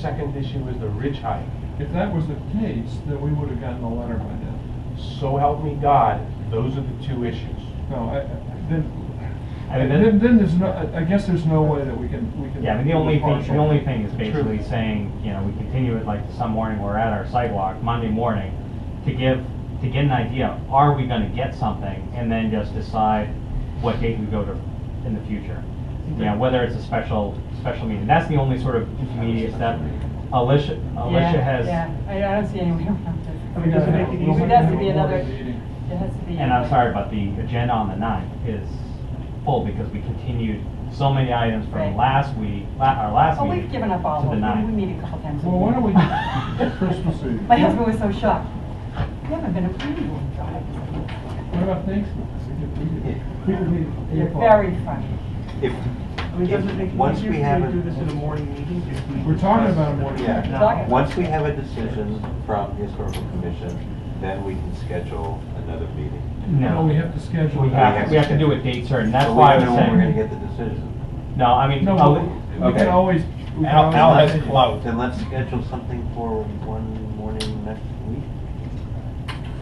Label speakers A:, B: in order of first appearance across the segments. A: Second issue is the ridge height.
B: If that was the case, then we would have gotten a letter by now.
A: So help me God, those are the two issues.
B: No, I, I- then,
C: I mean,
B: then,
C: the,
B: then there's no, I- I guess there's no way that we can, we can.
C: yeah, I mean, the only thing, the
B: partial.
C: only thing is basically
A: True.
C: saying, you know, we continue it like some morning, we're at our sidewalk, Monday morning, to give, to get an idea, are we gonna get something? And then just decide what date we go to in the future. You know, whether it's a special, special meeting. That's the only sort of intermediate step. Alicia, Alicia
D: Yeah,
C: has,
D: Yeah, I I don't see any way around it.
A: I mean, does it make it
D: We'll
A: easier?
D: have to be
B: We'll have
D: another-
B: a meeting.
D: It has to be.
C: and I'm sorry, but the agenda on the ninth is full because we continued so many items from
D: Right.
C: last week, la, our last
D: Oh,
C: meeting.
D: we've given up all
C: to the
D: of them. We
C: ninth.
D: meet a couple times. a
B: Well, why
D: week.
B: don't we, Christmas Eve.
D: My husband was so shocked. You haven't been a planning board drive.
B: What about Thanksgiving? We could- we could- we could meet at eight
D: You're
B: o'clock.
D: very funny.
E: If,
F: I mean, doesn't it make
E: if,
F: it
E: once
F: easier
E: we
F: if
E: have
F: we do this in a
E: a,
F: morning meeting? if we-
B: We're talking about a morning. meeting.
E: yeah,
D: Talking.
E: once we have a decision from the historical commission, then we can schedule another meeting.
C: No.
B: No, we have to schedule.
C: We have, we have to do a date certain, that's
E: But
C: why I
E: We don't know
C: was
E: when we're gonna
C: saying,
E: get the decision.
C: no, I mean, uh,
B: No,
C: Ali-
B: we- we
C: okay.
B: can always. we can
C: Al,
B: always-
C: Al has clout.
E: Then let's schedule something for one morning next week.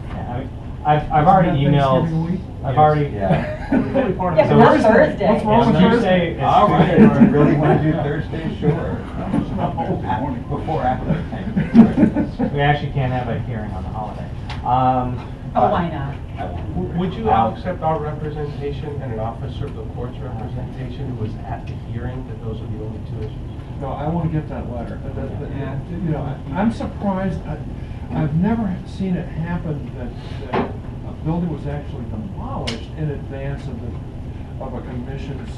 C: Yeah, I mean, I've, I've already
B: Isn't that Thanksgiving week?
C: emailed, I've
B: Yes.
C: already.
E: Yeah.
F: Totally part of
D: Yeah,
F: it.
D: but
C: So
D: not
C: where's
B: the-
D: Thursday.
B: what's wrong with
C: Thursday?
B: Thursday?
C: is
E: All right,
C: Friday.
E: if you really wanna do Thursday, sure. At- Before, after.
C: We actually can't have a hearing on the holiday. Um,
D: Oh, why not?
A: W- Would you all accept our representation and an officer of the court's representation who was at the hearing, that those are the only two issues?
B: No, I want to get that letter. But that- but,
F: Yeah.
B: You know, I- I'm surprised, I- I've never seen it happen that, that a building was actually demolished in advance of the, of a commission's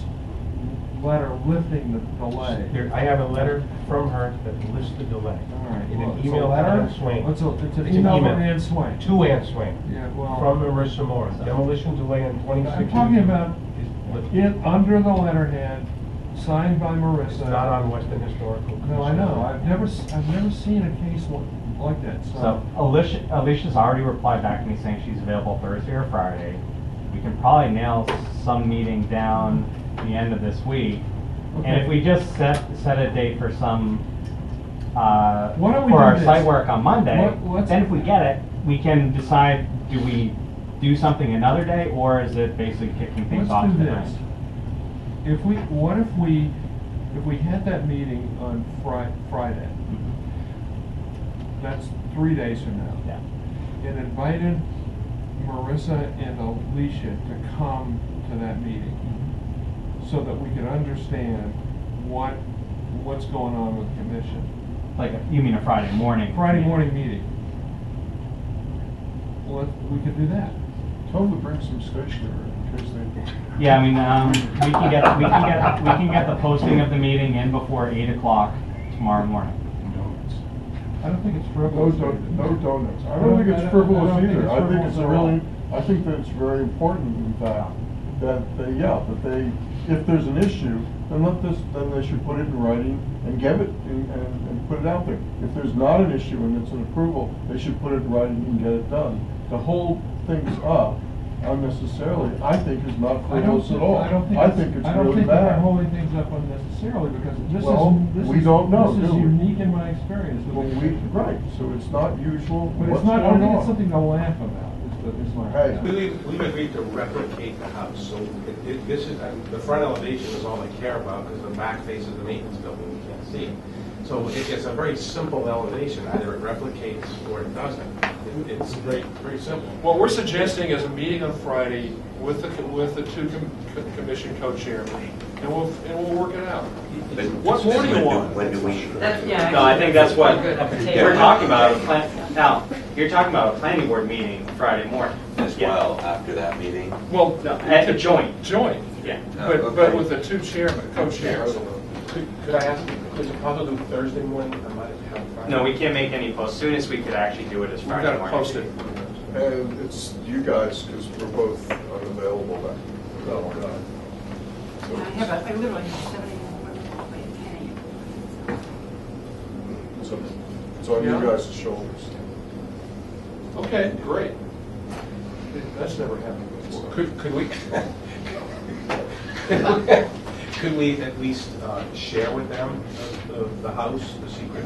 B: letter lifting the delay.
A: Here, I have a letter from her that lists the delay.
B: All right,
A: In
B: well,
A: an
B: it's a
A: email to
B: letter?
A: Ann Swain.
B: It's a- it's an
A: It's an
B: email
A: email.
B: from Ann Swain.
A: To Ann Swain,
B: Yeah,
A: from
B: well,
A: Marissa Morris, demolition delay on 26.
B: I'm talking about
A: Is-
B: it, under the letterhead, signed by
A: It's
B: Marissa.
A: not on Weston Historical Commission.
B: No, I know, I've never, s- I've never seen a case like- like that,
C: so Alicia, Alicia's already replied back to me saying she's available Thursday or Friday. We can probably nail some meeting down the end of this week. And
B: Okay.
C: if we just set, set a date for some, uh,
B: Why don't we
C: for
B: do
C: our
B: this?
C: site work on Monday,
B: What- what's-
C: then if we get it, we can decide, do we do something another day, or is it basically kicking things off
B: Let's
C: to
B: do
C: the
B: this.
C: night?
B: If we, what if we, if we had that meeting on Fri- Friday,
C: Mm-hmm.
B: that's three days from now,
C: Yeah.
B: and invited Marissa and Alicia to come to that meeting so that we could understand what, what's going on with the commission.
C: Like, you mean a Friday morning?
B: Friday morning meeting. Well, we could do that.
G: Totally bring some stationery in case they.
C: Yeah, I mean, um, we can get, we can get, we can get the posting of the meeting in before eight o'clock tomorrow morning.
G: Donuts.
B: I don't think it's
G: No
B: frivolous.
G: don, no donuts. I don't think it's frivolous either. I think it's a really, I think that it's very important that, that they, yeah, that they, if there's an issue, then let this, then they should put it in writing and give it, and, and and put it out there. If there's not an issue and it's an approval, they should put it in writing and get it done. To hold things up unnecessarily, I think is not
B: I don't,
G: frivolous at all.
B: I don't think,
G: I think it's
B: I don't
G: really
B: think
G: bad.
B: we're holding things up unnecessarily because this
G: Well,
B: is, this
G: we
B: is,
G: don't know,
B: this is
G: do we?
B: unique in my experience. with
G: Well,
B: the-
G: we, right, so it's not usual.
B: But
G: What's
B: it's not, I don't
G: going
B: think
G: on?
B: it's something to laugh about, is the, is my.
G: Hey.
H: We've, we've agreed to replicate the house, so it- it- this is, uh, the front elevation is all I care about, because the back face of the maintenance building, we can't see. it. So it- it's a very simple elevation, either it replicates or it doesn't. It- It's very, very simple.
I: What we're suggesting is a meeting on Friday with the, with the two com- co- commission co-chairmen, and we'll, and we'll work it out. What more do you want?
E: When do we?
D: That's, yeah.
C: No, I think that's what we're
D: Yeah.
C: talking about, a plan, now, you're talking about a planning board meeting Friday morning.
E: As
C: Yeah.
E: well, after that meeting.
I: Well,
C: No, at the joint.
I: joint,
C: Yeah.
I: but, but with the two chairmen, co-chairs.
H: Could could I ask, could you possibly do Thursday morning? I might have Friday.
C: No, we can't make any posts, soonest we could actually do it is
I: We've
C: Friday
I: got to
C: morning.
I: post it.
G: And it's you guys, because we're both unavailable that, that one night. So
J: I have a, I literally have seventy more play
G: It's on- it's on you
I: Yeah.
G: guys' shoulders.
I: Okay, great.
G: That's never happened before.
H: Could, could we? Could we at least uh, share with them the, the house, the secret house?